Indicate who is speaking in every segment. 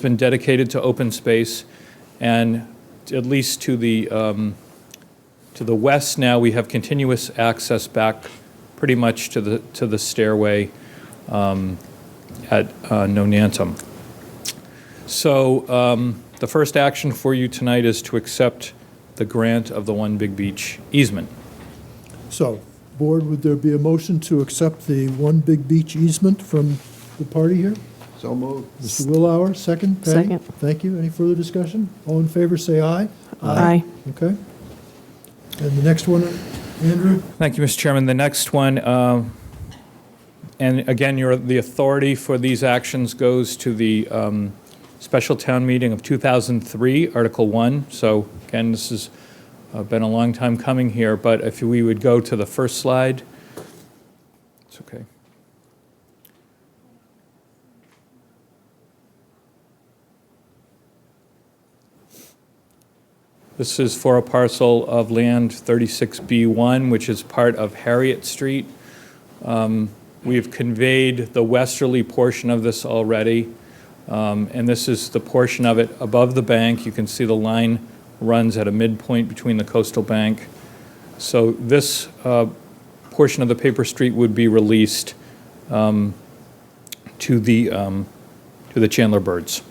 Speaker 1: been dedicated to open space, and at least to the, um, to the west now, we have continuous access back pretty much to the, to the stairway um, at uh, Nonantum. So um, the first action for you tonight is to accept the grant of the One Big Beach easement.
Speaker 2: So, board, would there be a motion to accept the One Big Beach easement from the party here?
Speaker 3: So moved.
Speaker 2: Mr. Willauer, second. Patty?
Speaker 4: Second.
Speaker 2: Thank you. Any further discussion? All in favor, say aye.
Speaker 4: Aye.
Speaker 2: Okay. And the next one, Andrew?
Speaker 1: Thank you, Mr. Chairman. The next one, uh, and again, your, the authority for these actions goes to the um, special town meeting of 2003, Article 1. So again, this has uh, been a long time coming here, but if we would go to the first slide. It's okay. This is for a parcel of land 36B1, which is part of Harriet Street. Um, We've conveyed the westerly portion of this already, um, and this is the portion of it above the bank. You can see the line runs at a midpoint between the coastal bank. So this uh, portion of the paper street would be released um, to the, um, to the Chandler Birds.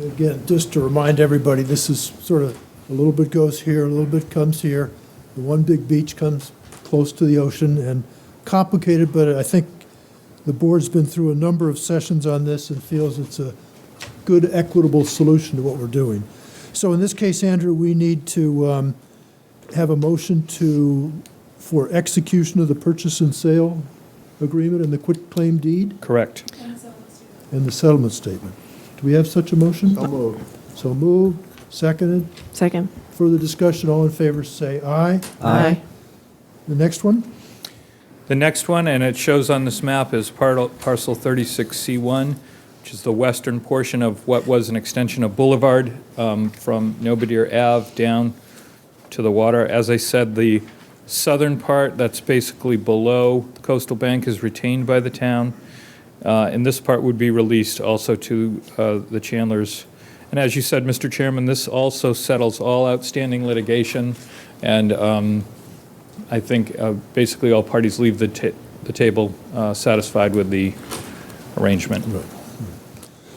Speaker 2: Again, just to remind everybody, this is sort of, a little bit goes here, a little bit comes here. The One Big Beach comes close to the ocean and complicated, but I think the board's been through a number of sessions on this and feels it's a good equitable solution to what we're doing. So in this case, Andrew, we need to um, have a motion to, for execution of the purchase and sale agreement and the quitclaim deed
Speaker 1: Correct.
Speaker 2: and the settlement statement. Do we have such a motion?
Speaker 3: So moved.
Speaker 2: So moved, seconded,
Speaker 4: Second.
Speaker 2: further discussion, all in favor, say aye. The next one?
Speaker 1: The next one, and it shows on this map, is par- parcel 36C1, which is the western portion of what was an extension of Boulevard um, from Nobodyer Ave down to the water. As I said, the southern part, that's basically below the coastal bank, is retained by the town. Uh, And this part would be released also to uh, the Chandlers. And as you said, Mr. Chairman, this also settles all outstanding litigation and um, I think uh, basically all parties leave the ta- the table uh, satisfied with the arrangement.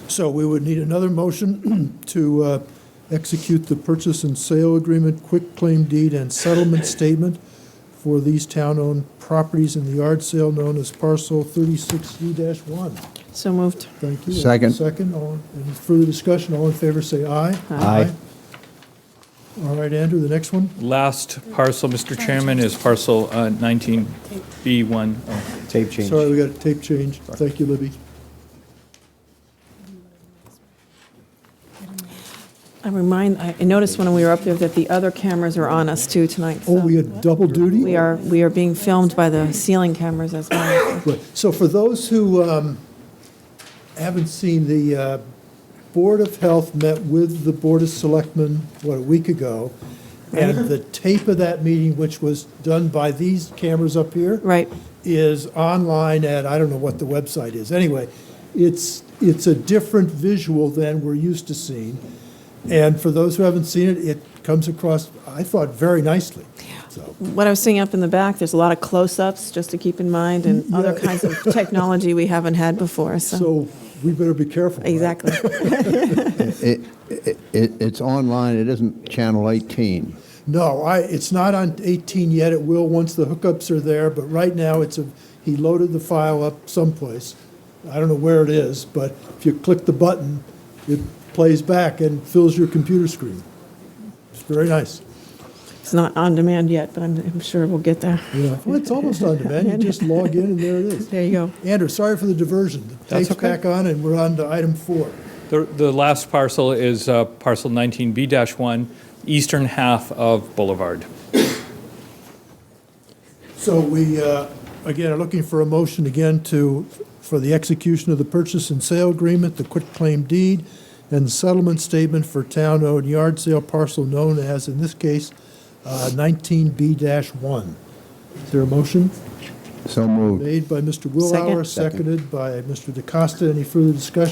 Speaker 2: So we would need another motion to uh, execute the purchase and sale agreement, quick claim deed, and settlement statement for these town-owned properties in the yard sale known as parcel 36D-1.
Speaker 4: So moved.
Speaker 2: Thank you.
Speaker 3: Second.
Speaker 2: Second, all, any further discussion, all in favor, say aye.
Speaker 3: Aye.
Speaker 2: All right, Andrew, the next one?
Speaker 1: Last parcel, Mr. Chairman, is parcel uh, 19B1. Oh,
Speaker 3: Tape change.
Speaker 2: Sorry, we got a tape change. Thank you, Libby.
Speaker 4: I remind, I noticed when we were up there that the other cameras are on us too tonight. so
Speaker 2: Oh, we had double duty?
Speaker 4: We are, we are being filmed by the ceiling cameras as well.
Speaker 2: Right. So for those who um, haven't seen, the uh, Board of Health met with the Board of Selectmen, what, a week ago,
Speaker 4: Mm-hmm.
Speaker 2: and the tape of that meeting, which was done by these cameras up here,
Speaker 4: Right.
Speaker 2: is online at, I don't know what the website is. Anyway, it's, it's a different visual than we're used to seeing. And for those who haven't seen it, it comes across, I thought, very nicely. So,
Speaker 4: What I was seeing up in the back, there's a lot of close-ups just to keep in mind and other kinds of technology we haven't had before, so.
Speaker 2: Mm-hmm. so we better be careful. right?
Speaker 4: Exactly.
Speaker 3: It, it, it- it's online, it isn't channel 18.
Speaker 2: No, I, it's not on 18 yet. It will once the hookups are there, but right now it's a, he loaded the file up someplace. I don't know where it is, but if you click the button, it plays back and fills your computer screen. It's very nice.
Speaker 4: It's not on demand yet, but I'm, I'm sure we'll get there.
Speaker 2: Yeah. Well, it's almost on demand. You just log in and there it is.
Speaker 4: There you go.
Speaker 2: Andrew, sorry for the diversion. The
Speaker 1: That's
Speaker 2: tape's
Speaker 1: okay.
Speaker 2: back on and we're on to item four.
Speaker 1: The the last parcel is uh, parcel 19B-1, eastern half of Boulevard.
Speaker 2: So we, uh, again, are looking for a motion again to, for the execution of the purchase and sale agreement, the quitclaim deed, and settlement statement for town-owned yard sale parcel known as, in this case, uh, 19B-1. Is there a motion?
Speaker 3: So moved.
Speaker 2: Made by Mr. Willauer,
Speaker 4: Second.
Speaker 2: seconded by Mr. DeCosta. Any further discussion?